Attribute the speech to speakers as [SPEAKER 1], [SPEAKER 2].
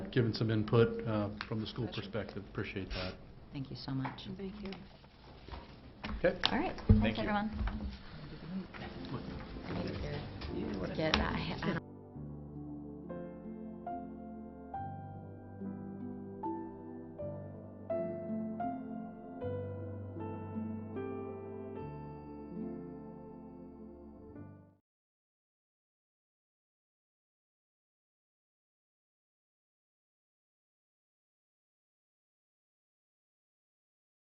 [SPEAKER 1] given some input uh, from the school perspective. Appreciate that.
[SPEAKER 2] Thank you so much.
[SPEAKER 3] Thank you.
[SPEAKER 1] Okay.
[SPEAKER 2] All right,
[SPEAKER 4] Thank
[SPEAKER 2] thanks,
[SPEAKER 4] you.
[SPEAKER 2] everyone. Get, I, I don't